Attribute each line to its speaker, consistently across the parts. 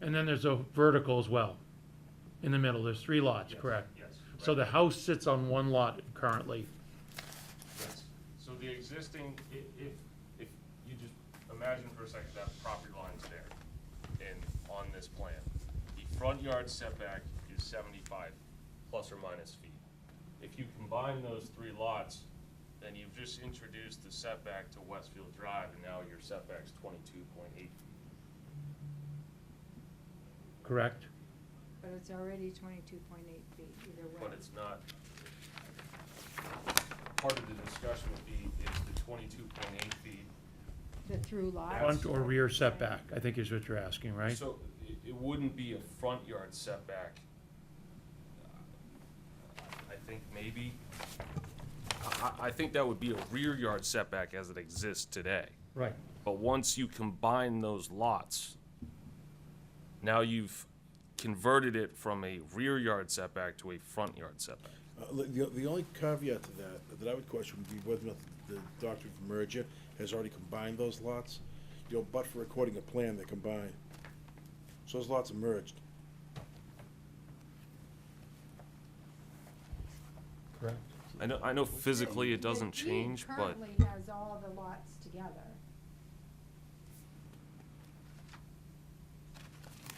Speaker 1: And then there's a vertical as well, in the middle, there's three lots,
Speaker 2: Yes,
Speaker 1: correct?
Speaker 2: Yes.
Speaker 1: So the
Speaker 2: correct,
Speaker 1: house sits on one lot currently,
Speaker 2: yes. So the existing, i- if, if you just imagine for a second that property line's there and on this plan, the front yard setback is seventy-five plus or minus feet. If you combine those three lots, then you've just introduced the setback to Westfield Drive and now your setback's twenty-two point eight feet.
Speaker 1: correct?
Speaker 3: But it's already twenty-two point eight feet either way.
Speaker 2: But it's not. Part of the discussion would be is the twenty-two point eight feet
Speaker 3: The through lot.
Speaker 1: Front or rear setback, I think is what you're asking, right?
Speaker 2: So it, it wouldn't be a front yard setback. I think maybe, I, I, I think that would be a rear yard setback as it exists today.
Speaker 1: Right.
Speaker 2: But once you combine those lots, now you've converted it from a rear yard setback to a front yard setback.
Speaker 4: Uh, li- The, the only caveat to that, that I would question would be whether or not the doctrine of merger has already combined those lots, you know, but for recording a plan, they combine. So those lots are merged.
Speaker 1: Correct.
Speaker 2: I know, I know physically it doesn't
Speaker 3: The deed
Speaker 2: change, but
Speaker 3: Currently has all the lots together.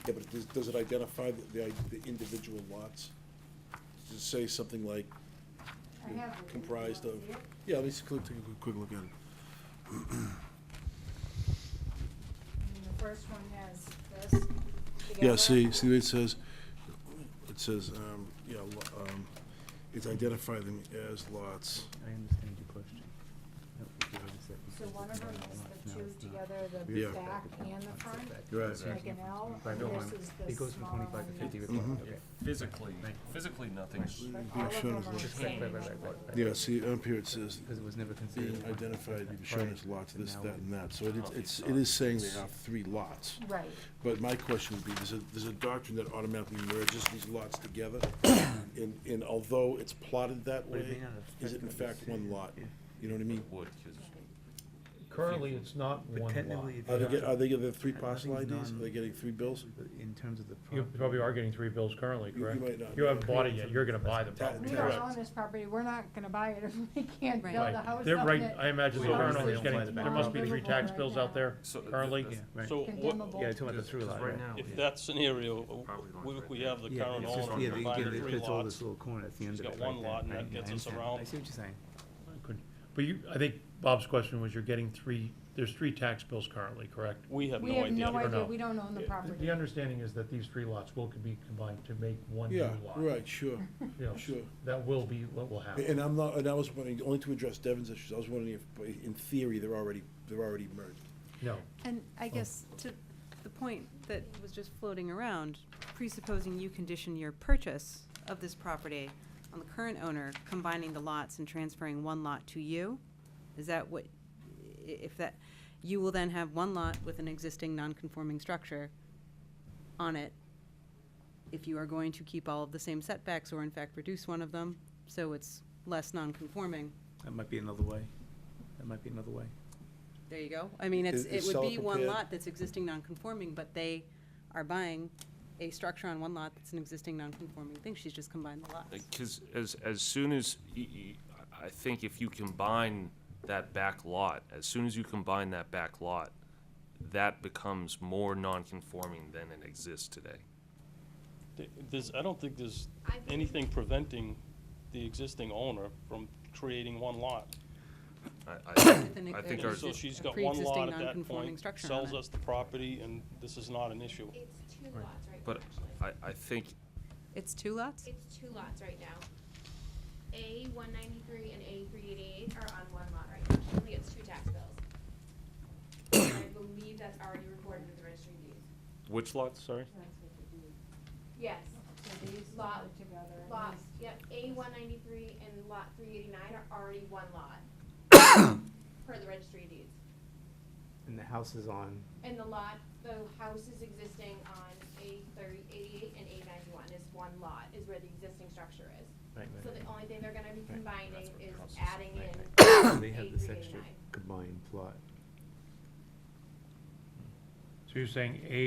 Speaker 4: Yeah, but does, does it identify the- the, i- the individual lots? Does it say something like
Speaker 3: I
Speaker 4: you know,
Speaker 3: have. it.
Speaker 4: Hmm. comprised
Speaker 3: You
Speaker 4: of?
Speaker 3: wanna see it?
Speaker 4: Yeah, let's click, take a quick- quick look at it.
Speaker 3: I mean, the first one has this together.
Speaker 4: Yeah, see, see what it says? It says, um, yeah, lo- um, it's identify them as lots.
Speaker 5: I understand your question.
Speaker 3: So one of them is the two together, the
Speaker 4: Yeah.
Speaker 3: back and the front,
Speaker 4: Right.
Speaker 3: like an L,
Speaker 5: I
Speaker 3: and
Speaker 5: don't
Speaker 3: this
Speaker 5: mind.
Speaker 3: is the
Speaker 5: It goes from
Speaker 3: smaller
Speaker 5: twenty-five
Speaker 3: one.
Speaker 5: to fifty
Speaker 3: that's-
Speaker 5: with one,
Speaker 4: Mhm.
Speaker 5: okay.
Speaker 2: physically, physically nothing's
Speaker 3: But
Speaker 4: Yeah,
Speaker 3: all of
Speaker 4: sure,
Speaker 3: them
Speaker 4: it's
Speaker 3: are
Speaker 4: like-
Speaker 3: the
Speaker 5: Just right,
Speaker 3: same.
Speaker 5: right, right, right, right, right.
Speaker 4: Yeah, see, up here it says,
Speaker 5: Because it was never considered.
Speaker 4: being identified,
Speaker 5: as
Speaker 4: shown
Speaker 5: part,
Speaker 4: as lots,
Speaker 5: and
Speaker 4: this,
Speaker 5: now
Speaker 4: that, and that, so
Speaker 2: Oh,
Speaker 4: it- it's,
Speaker 2: okay.
Speaker 4: it is saying they have three lots.
Speaker 3: Right,
Speaker 4: But my question would be, there's a, there's a doctrine that automatically merges these lots together, and, and although it's plotted that
Speaker 5: But it
Speaker 4: way,
Speaker 5: may not
Speaker 4: is it
Speaker 5: affect
Speaker 4: in
Speaker 5: what
Speaker 4: fact
Speaker 5: you
Speaker 4: one
Speaker 5: see.
Speaker 4: lot? You know what I mean?
Speaker 2: wood, cause
Speaker 1: Currently, it's not one
Speaker 5: But
Speaker 1: lot.
Speaker 5: technically, if
Speaker 4: Are
Speaker 5: you
Speaker 4: they, get- are
Speaker 5: have-
Speaker 4: they getting three parcel IDs,
Speaker 5: Nothing's
Speaker 4: are they
Speaker 5: non-
Speaker 4: getting three bills?
Speaker 5: In terms of the.
Speaker 1: You
Speaker 5: property,
Speaker 1: probably are getting three bills currently,
Speaker 4: You- you
Speaker 1: correct?
Speaker 4: might not.
Speaker 1: You haven't bought it yet, you're gonna buy the
Speaker 4: Ta-
Speaker 1: property.
Speaker 3: we
Speaker 4: Right.
Speaker 3: don't own this property, we're not gonna buy it if we can't
Speaker 6: Right.
Speaker 3: build a house on it.
Speaker 1: They're right, I imagine the
Speaker 2: Well,
Speaker 1: current
Speaker 2: obviously
Speaker 1: owner's getting,
Speaker 5: it's not
Speaker 1: there must be three
Speaker 3: livable
Speaker 1: tax
Speaker 3: right
Speaker 1: bills
Speaker 3: now.
Speaker 1: out there
Speaker 2: So th-
Speaker 1: currently.
Speaker 2: th-
Speaker 5: Right.
Speaker 7: So what,
Speaker 3: Condemnable.
Speaker 5: Yeah, talking about the through lot, right?
Speaker 2: now,
Speaker 7: if that scenario,
Speaker 2: Property line's
Speaker 7: we,
Speaker 2: right
Speaker 7: we
Speaker 2: there.
Speaker 7: have the
Speaker 5: Yeah,
Speaker 7: current
Speaker 5: it's just-
Speaker 7: owner
Speaker 5: yeah, they give
Speaker 7: combining
Speaker 5: it-
Speaker 7: three
Speaker 5: it's all
Speaker 7: lots.
Speaker 5: this little corner at the end
Speaker 7: She's
Speaker 5: of it.
Speaker 7: got
Speaker 5: right
Speaker 7: one
Speaker 5: there.
Speaker 7: lot and
Speaker 5: I-
Speaker 7: that
Speaker 5: I
Speaker 7: gets us
Speaker 5: understand.
Speaker 7: around.
Speaker 5: I see what you're saying.
Speaker 1: Couldn't- But you, I think Bob's question was you're getting three, there's three tax bills currently, correct?
Speaker 7: We have
Speaker 3: We
Speaker 7: no
Speaker 3: have no
Speaker 7: idea.
Speaker 1: Or
Speaker 3: idea,
Speaker 1: no?
Speaker 3: we don't own the
Speaker 1: The-
Speaker 3: property.
Speaker 1: The understanding is that these three lots will be combined to make one new
Speaker 4: Yeah,
Speaker 1: lot.
Speaker 4: right, sure,
Speaker 1: You know,
Speaker 4: sure.
Speaker 1: That will be what will
Speaker 4: And-
Speaker 1: happen.
Speaker 4: And I'm not, and I was wondering, only to address Devin's issues, I was wondering if, in theory, they're already, they're already merged.
Speaker 1: No,
Speaker 6: And I guess to the point that was just floating around, presupposing you condition your purchase of this property on the current owner combining the lots and transferring one lot to you, is that what, i- if that, you will then have one lot with an existing non-conforming structure on it, if you are going to keep all of the same setbacks or in fact reduce one of them, so it's less non-conforming,
Speaker 5: That might be another way. That might be another way.
Speaker 6: There you go. I mean, it's,
Speaker 4: Is- is
Speaker 6: it would
Speaker 4: seller
Speaker 6: be one
Speaker 4: prepared-
Speaker 6: lot that's existing non-conforming, but they are buying a structure on one lot that's an existing non-conforming thing. She's just combined the lots.
Speaker 2: Because as, as soon as, y- y- I think if you combine that back lot, as soon as you combine that back lot, that becomes more non-conforming than it exists today.
Speaker 7: Th- There's, I don't think there's
Speaker 3: I believe-
Speaker 7: anything preventing the existing owner from creating one lot.
Speaker 2: I, I,
Speaker 6: With an-
Speaker 2: I think
Speaker 6: an
Speaker 2: our-
Speaker 7: So she's
Speaker 6: exist- a
Speaker 7: got one lot
Speaker 6: pre-existing
Speaker 7: at that
Speaker 6: non-conforming
Speaker 7: point,
Speaker 6: structure on
Speaker 7: sells
Speaker 6: it.
Speaker 7: us the property, and this is not an issue.
Speaker 8: It's two lots right now,
Speaker 2: but
Speaker 8: actually.
Speaker 2: I, I think,
Speaker 6: It's two lots?
Speaker 8: It's two lots right now. A one ninety-three and A three eighty-eight are on one lot right now. She only gets two tax bills. I believe that's already recorded with the registry of deeds.
Speaker 2: which lot, sorry?
Speaker 8: Yes,
Speaker 3: So these
Speaker 8: Lot-
Speaker 3: are together. and
Speaker 8: lots, yep, A one ninety-three and lot three eighty-nine are already one lot. Per the registry of deeds.
Speaker 5: And the house is on,
Speaker 8: And the lot, the house is existing on A thirty eighty-eight and A ninety-one is one lot, is where the existing structure is.
Speaker 5: right,
Speaker 8: So the only thing they're gonna be
Speaker 5: Right.
Speaker 8: combining
Speaker 2: That's what
Speaker 8: is
Speaker 2: crosses the
Speaker 8: adding
Speaker 2: line.
Speaker 8: in
Speaker 5: right. They
Speaker 8: A
Speaker 5: have this
Speaker 8: three
Speaker 5: extra
Speaker 8: eighty-nine.
Speaker 5: combined plot.
Speaker 1: so you're saying A